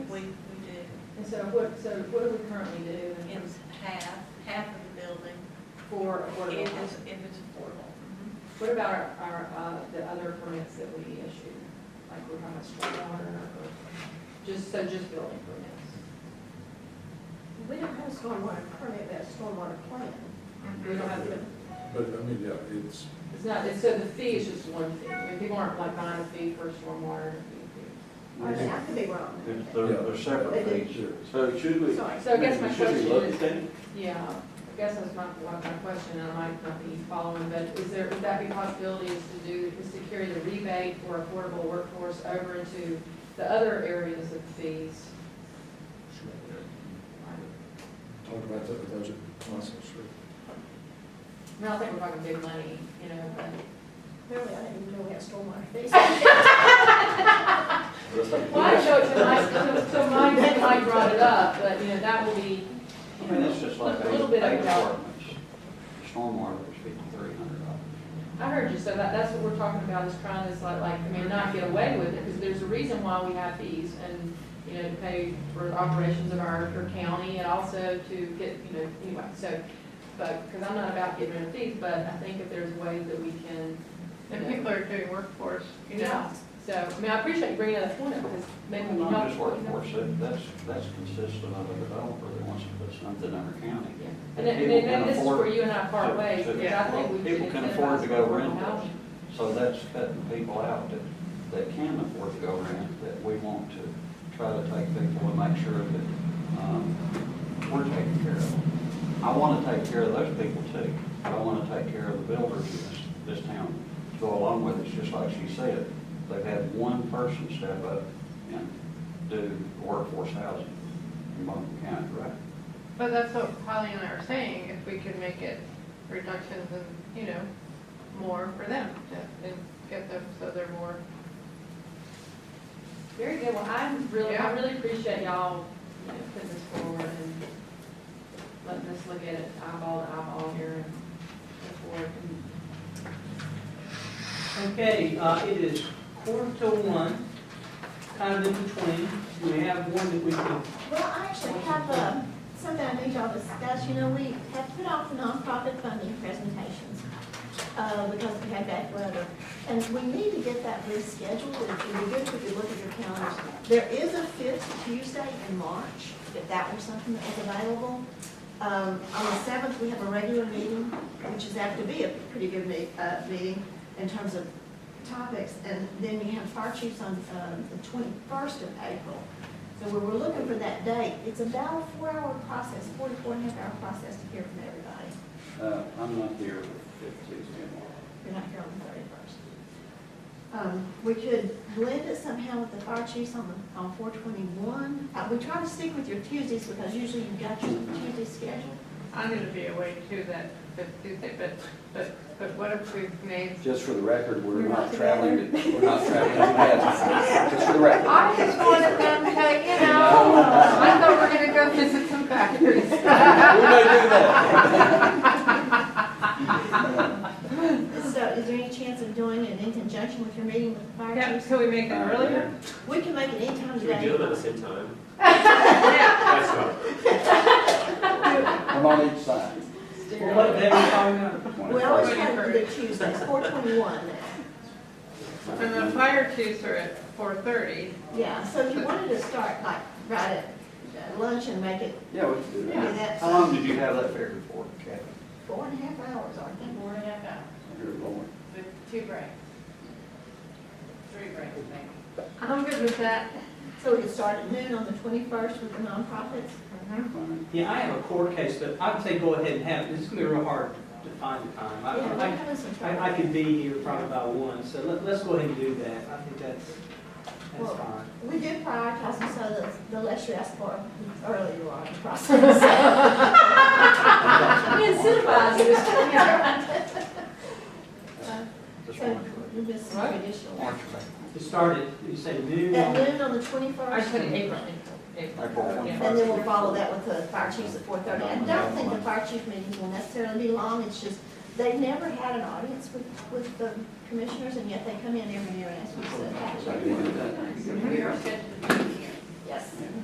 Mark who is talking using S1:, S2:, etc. S1: we, we do.
S2: And so what, so what do we currently do in terms
S1: It's half, half of the building,
S2: for affordable
S1: if it's,
S2: housing?
S1: if it's affordable.
S2: What about our- our, uh, the other permits that we issue? Like we're talking about stormwater or, just, so just building permits?
S3: We don't have a stormwater permit, but a stormwater plan.
S2: We
S3: Mm-hmm.
S2: don't have, to-
S4: But, I mean, yeah, it's,
S2: it's not, it's, so the fee is just one fee. I mean, people aren't like buying a fee for stormwater and a fee
S3: I mean, I could be wrong.
S5: They're, they're- they're separate things.
S4: sure.
S5: So should we?
S3: Sorry.
S2: fee. So I guess my
S5: should we
S2: question
S5: look
S2: is,
S5: at that?
S2: yeah, I guess that's my, my my question, and I might not be following, but is there, would that be a possibility is to do, is to carry the rebate for affordable workforce over into the other areas of fees?
S4: Talk about that, the budget process, sure.
S2: I mean, I think we're talking big money, you know, but.
S3: Apparently, I didn't even know we had stormwater. fees.
S2: Well, I showed it to my, to, to Mike, and Mike brought it up, but, you know, that will be, you
S5: I mean, it's just
S2: know,
S5: like
S2: a
S5: eight
S2: little bit of
S5: eight
S2: a help.
S5: apartments. Stormwater is fifty-three hundred dollars.
S2: I heard you, so that, that's what we're talking about, is trying to, like, like, I mean, not get away with it, because there's a reason why we have fees, and, you know, to pay for operations of our, our county, and also to get, you know, anyway, so, but, because I'm not about getting rid of fees, but I think if there's ways that we can. you
S6: And
S2: know,
S6: people are doing workforce, you know?
S2: Yeah, so, I mean, I appreciate you bringing that point up, because maybe we
S5: Not
S2: don't.
S5: just workforce, that- that's, that's consistent of a developer that wants to put something under county.
S2: Yeah. And then, and
S5: People
S2: then
S5: can
S2: maybe this is
S5: afford-
S2: where you and I part ways,
S5: to- to-
S2: because I think we should.
S5: People can
S2: incentivize
S5: afford to go
S2: affordable
S5: rent
S2: housing.
S5: those. So that's cutting people out that, that can afford to go rent, that we want to try to take people and make sure that, um, we're taken care of. I want to take care of those people too. I want to take care of the builders in this, this town to go along with it. It's just like she said, they've had one person step up and do workforce housing in Buncombe County, right?
S6: But that's what Holly and I are saying, if we could make it reductions and, you know, more for them to, and get them so they're more,
S2: Very good, well, I really, I
S6: Yeah.
S2: really appreciate y'all, you know, putting this forward and letting us look at it eyeball to eyeball here and look forward.
S7: Okay, uh, it is quarter to one, kind of in between. We have one that we can,
S3: Well, I actually have, uh, something I need y'all to discuss, you know, we have put off the nonprofit funding presentations, uh, because we had bad weather. And we need to get that rescheduled, and it would be good if you look at your calendars. There is a fifth Tuesday in March, if that were something that was available. Um, on the seventh, we have a regular meeting, which is apt to be a pretty good me, uh, meeting in terms of topics. And then you have fire chiefs on, um, the twenty-first of April. So we were looking for that date. It's about a four-hour process, four to four and a half hour process to hear from everybody.
S5: Uh, I'm not here for Tuesday morning.
S3: You're not here on the thirty-first. Um, we could blend it somehow with the fire chiefs on the, on four twenty-one. Uh, we try to stick with your Tuesdays because usually you've got your Tuesday schedule.
S6: I'm gonna be away too that fifth Tuesday, but, but, but what if we made,
S5: Just for the record, we're
S3: We're
S5: not
S3: not
S5: traveling, to- we're not traveling to Madison. Just for the record.
S6: I just wanted them to, you know, I thought we were gonna go visit some factories.
S5: We're not doing that.
S3: So is there any chance of doing it in conjunction with your meeting with the fire
S6: Yeah,
S3: chiefs?
S6: so we make it earlier?
S3: We can make it any time of
S8: Can we do them at the
S3: day.
S8: same time?
S6: Yeah,
S8: That's fine.
S5: I'm on each side.
S7: well, what day are we talking about?
S3: We always try to do the Tuesdays, four twenty-one.
S6: and the fire chiefs are at four thirty.
S3: Yeah, so if you wanted to start like right at uh, lunch and make it
S5: Yeah, we can do
S3: Yeah,
S5: that.
S3: that's-
S5: How long did you have that figured for, Kathy?
S3: Four and a half hours, aren't they?
S6: Four and a half hours.
S5: You're going.
S6: With two breaks. Three breaks, maybe. I'm good with that.
S3: So we could start at noon on the twenty-first with the nonprofits?
S5: Fine.
S7: Yeah, I have a court case, but I would say go ahead and have it. This is gonna be real hard to find the time. I-
S3: Yeah, we're
S7: I,
S3: having some trouble.
S7: I, I can be here probably by one, so let, let's go ahead and do that. I think that's, that's
S3: Well-
S7: fine.
S3: We do prioritize them so that the less you ask for, the earlier you are in the process.
S2: We incentivize it, it's, you know.
S5: Just
S3: So,
S5: want to-
S3: we just
S2: Right.
S3: traditional.
S5: want to-
S7: It started, you say noon
S3: At
S7: on,
S3: noon on the
S2: I
S3: twenty-first,
S2: put it
S3: and
S2: April, April.
S5: April
S2: Yeah.
S5: 21st.
S3: then we'll follow that with the fire chiefs at four thirty. I don't think the fire chief meetings will necessarily be long, it's just, they've never had an audience with, with the commissioners, and yet they come in every year and ask for
S5: So you want to do
S3: stuff.
S5: that?
S6: We are scheduled to be here.
S3: Yes.